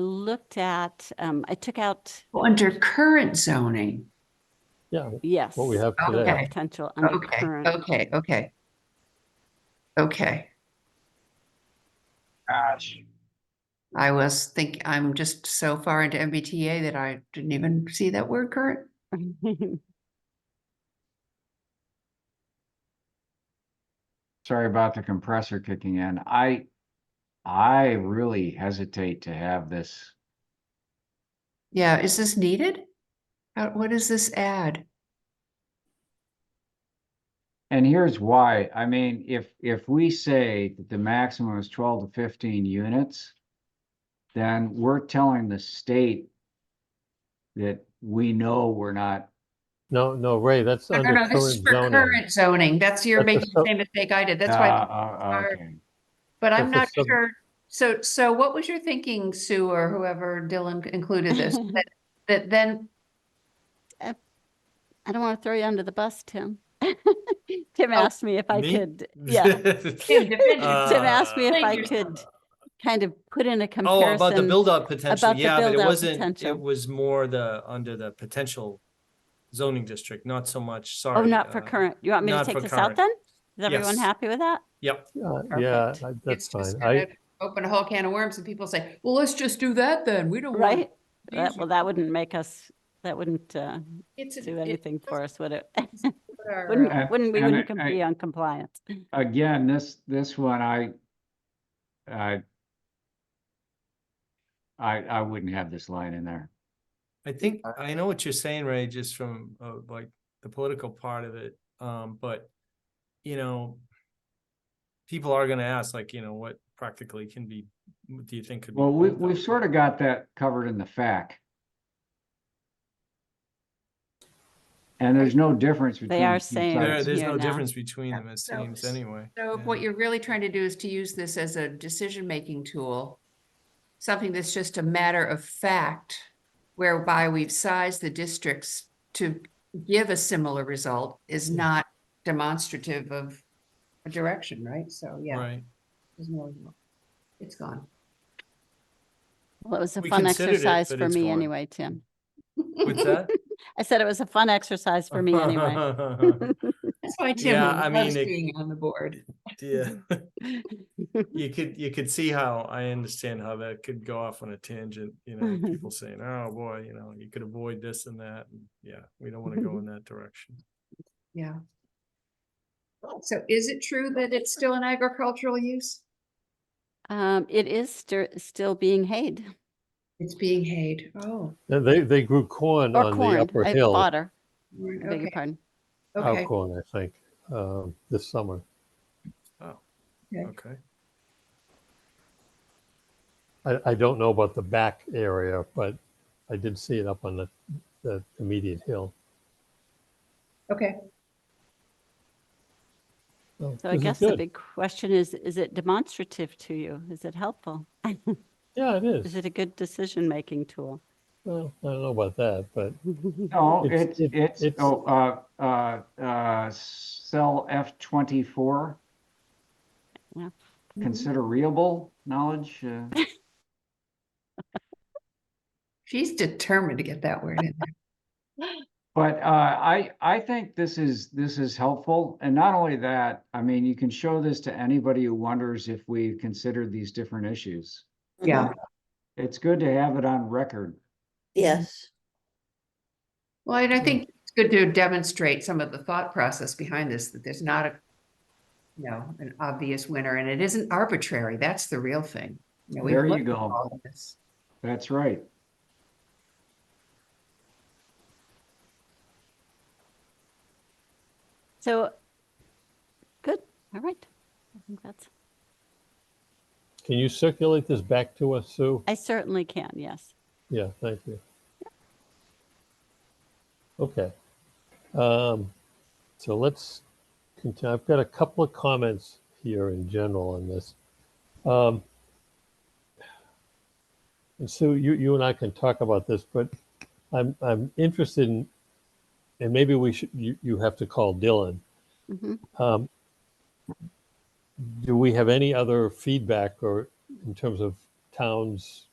looked at, um, I took out, Well, Under current zoning. Yeah, yes. what we have Okay. today. Potential under Okay, current. okay, okay. Okay, Gosh. I was think, I'm just so far into MBTA that I didn't even see that word current. Oh. Sorry about the compressor kicking in. I, I really hesitate to have this. Yeah, is this needed? How- What does this add? And here's why. I mean, if, if we say that the maximum is twelve to fifteen units, then we're telling the state that we know we're not, No, no, Ray, that's No, under no, no, this is current for zoning. current zoning. That's, you're That's the making the so- same mistake I did. uh, That's why, uh, our- okay. but I'm not that's the sub- sure. So, so what was your thinking, Sue, or whoever Dylan included this? That, that then, I don't want to throw you under the bus, Tim. Oh, Tim asked me if I me? could, yeah. Tim, defend Uh, Tim asked me if Thank I you. could kind of put in a Oh, about the comparison. build-up potential, about the yeah, but it build-out wasn't, potential. it was more the, under the potential zoning district, not so much, sorry. Oh, not for uh, current. You want me to not for take this out current. then? Is everyone Yes. happy with that? Yep, Uh, Yeah, I- that's it's just fine. gonna I, open a whole can of worms and people say, well, let's just do that then. We don't want. Right? That- Well, that wouldn't make us, that wouldn't uh, It's, an- do it- anything for us, would it? what our, uh, Wouldn't, wouldn't, we and wouldn't I- com- I- be on compliance. Again, this, this one, I, I, I, I wouldn't have this line in there. I think, I know what you're saying, Ray, just from, uh, like, the political part of it, um, but, you know, people are gonna ask, like, you know, what practically can be, what do you think could be? Well, we, built out we've sort of there? got that covered in the FAC. And there's no difference between. They are the two saying- There, sides. there's here no now. difference between them, it So- seems, anyway. So if yeah. what you're really trying to do is to use this as a decision-making tool, something that's just a matter of fact, whereby we've sized the districts to give a similar result is not demonstrative of a direction, right? So, yeah. Right, there's no- It's gone. Well, it was a We fun considered it, exercise but for it's me gone. anyway, Tim. what's that? I said it was a fun exercise for me anyway. That's why Tim Yeah, I loves mean, it- being on the board. Yeah. You could, you could see how, I understand how that could go off on a tangent, you know, people saying, oh, boy, you know, you could avoid this and that. and Yeah, we don't want to go in that direction. Yeah. So is it true that it's still an agricultural use? Um, it is stir- still being hayed It's being hayed. Oh. and they, they grew corn or on the corn, upper I hill, bought her, right, I beg your Okay, pardon. our Oh, okay. corn, I think, um, this summer. Okay. I, I don't know about the back area, but I did see it up on the, the immediate hill. Okay. So I guess the big question is, is it demonstrative to you? Is it helpful? Yeah, it Is is. it a good decision-making tool? Well, I don't know about that, but No, It's- it's, it- it's, it's- oh, uh, uh, uh, cell F twenty-four. Yeah. Consider reable knowledge, uh, She's determined to get that word in there. but, uh, I, I think this is, this is helpful. And not only that, I mean, you can show this to anybody who wonders if we considered these different issues. Yeah. It's good to have it on record. Yes, Well, and I think it's good to demonstrate some of the thought process behind this, that there's not a, you know, an obvious winner and it isn't arbitrary. That's the real thing. know, we've There you looked at go. all of this. That's right. So, good, all right. I think that's, can you circulate this back to us, Sue? I certainly can, yes. Yeah, thank you. Okay. Um, so let's continue. I've got a couple of comments here in general on this. Um, and Sue, you, you and I can talk about this, but I'm, I'm interested in, and maybe we should, you, you have to call Dylan. Mhm. Um, do we have any other feedback or in terms of towns